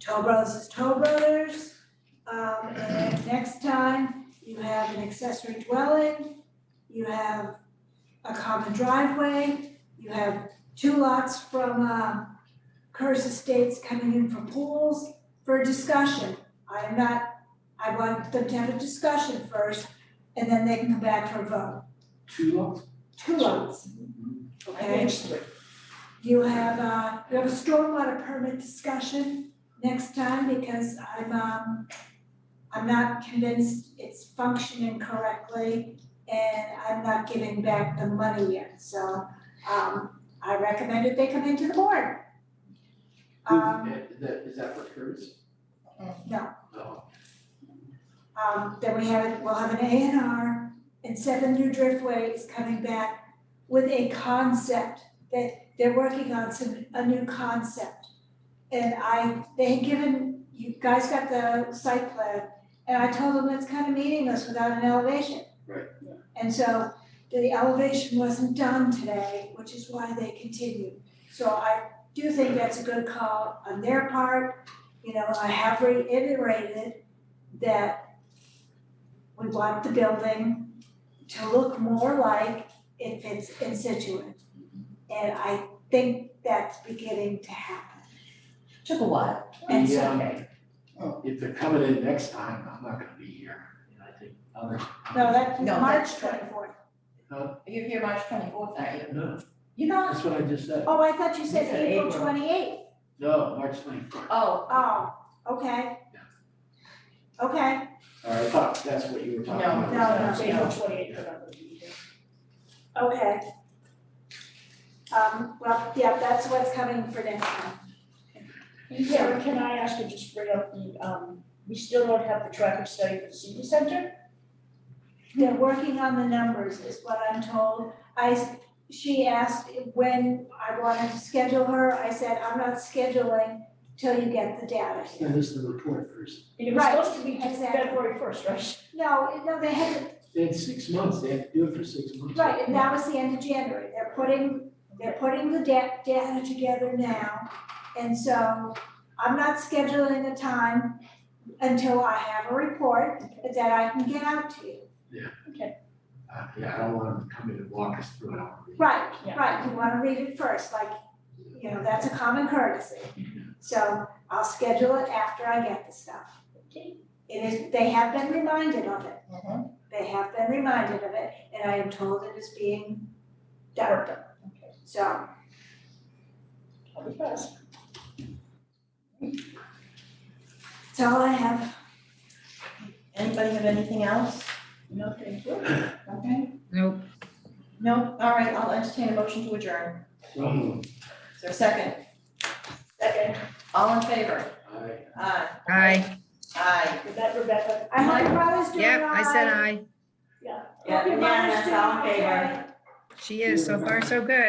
Toll Brothers is Toll Brothers. Um, and then next time, you have an accessory dwelling, you have a common driveway, you have two lots from, uh, Curse Estates coming in for pools for a discussion. I am not, I want them to have a discussion first, and then they can come back for a vote. Two lots? Two lots, okay? You have, uh, you have a stormwater permit discussion next time because I'm, um, I'm not convinced it's functioning correctly and I'm not giving back the money yet, so, um, I recommended they come into the board. Um, uh, Is that, is that what hers? No. No. um, then we have, we'll have an A and R and seven new driftways coming back with a concept that they're working on some, a new concept. And I, they had given, you guys got the site plan, and I told them it's kind of meaningless without an elevation. Right. And so the elevation wasn't done today, which is why they continued. So I do think that's a good call on their part. You know, I have reiterated that we want the building to look more like if it's in Situate. And I think that's beginning to happen. Took a while. And so, Yeah. If they're coming in next time, I'm not gonna be here, and I think other. no, that's No, March that's- twenty fourth. You're here March twenty-fourth, aren't you? No, You're not? that's what I just said, Oh, I thought you said It's in April April. twenty eighth. no, March twenty-fourth, Oh, Oh, okay. Okay, or I thought that's what you were talking No, about. uh, no, no. April twenty eighth, okay. Um, well, yeah, that's what's coming for next time. Karen, can I ask you just bring up the, um, we still don't have the traffic study for the senior center? They're working on the numbers is what I'm told. I, s- she asked when I wanted to schedule her. I said, I'm not scheduling till you get the data. Send us the report first, And it was Right, supposed to be just exactly. February first, right? No, no, they had, they had six months, they had to do it for six months. right, and that was the end of January. They're putting, they're putting the da- data together now. And so I'm not scheduling a time until I have a report that I can get out to you. Uh, yeah, I don't want them to come in and walk us through it, I want to read it. Right, Yeah. right, you wanna read it first, like, you know, that's a common courtesy. So I'll schedule it after I get the stuff. Okay. It is, they have been reminded of it, mhm. they have been reminded of it, and I am told it is being done, Okay. so. I'll be fast. That's all I have. Anybody have anything else? No, thank you. Okay. Nope. Nope, all right, I'll entertain a motion to adjourn. So, Is there a second? Second, All in favor? I- Aye. Aye, Aye. with that Rebecca, I hope your brother's doing all yep, I right. said aye. yeah. Hope your brother's doing Unanimous, all in favor. okay. She is, so far so good.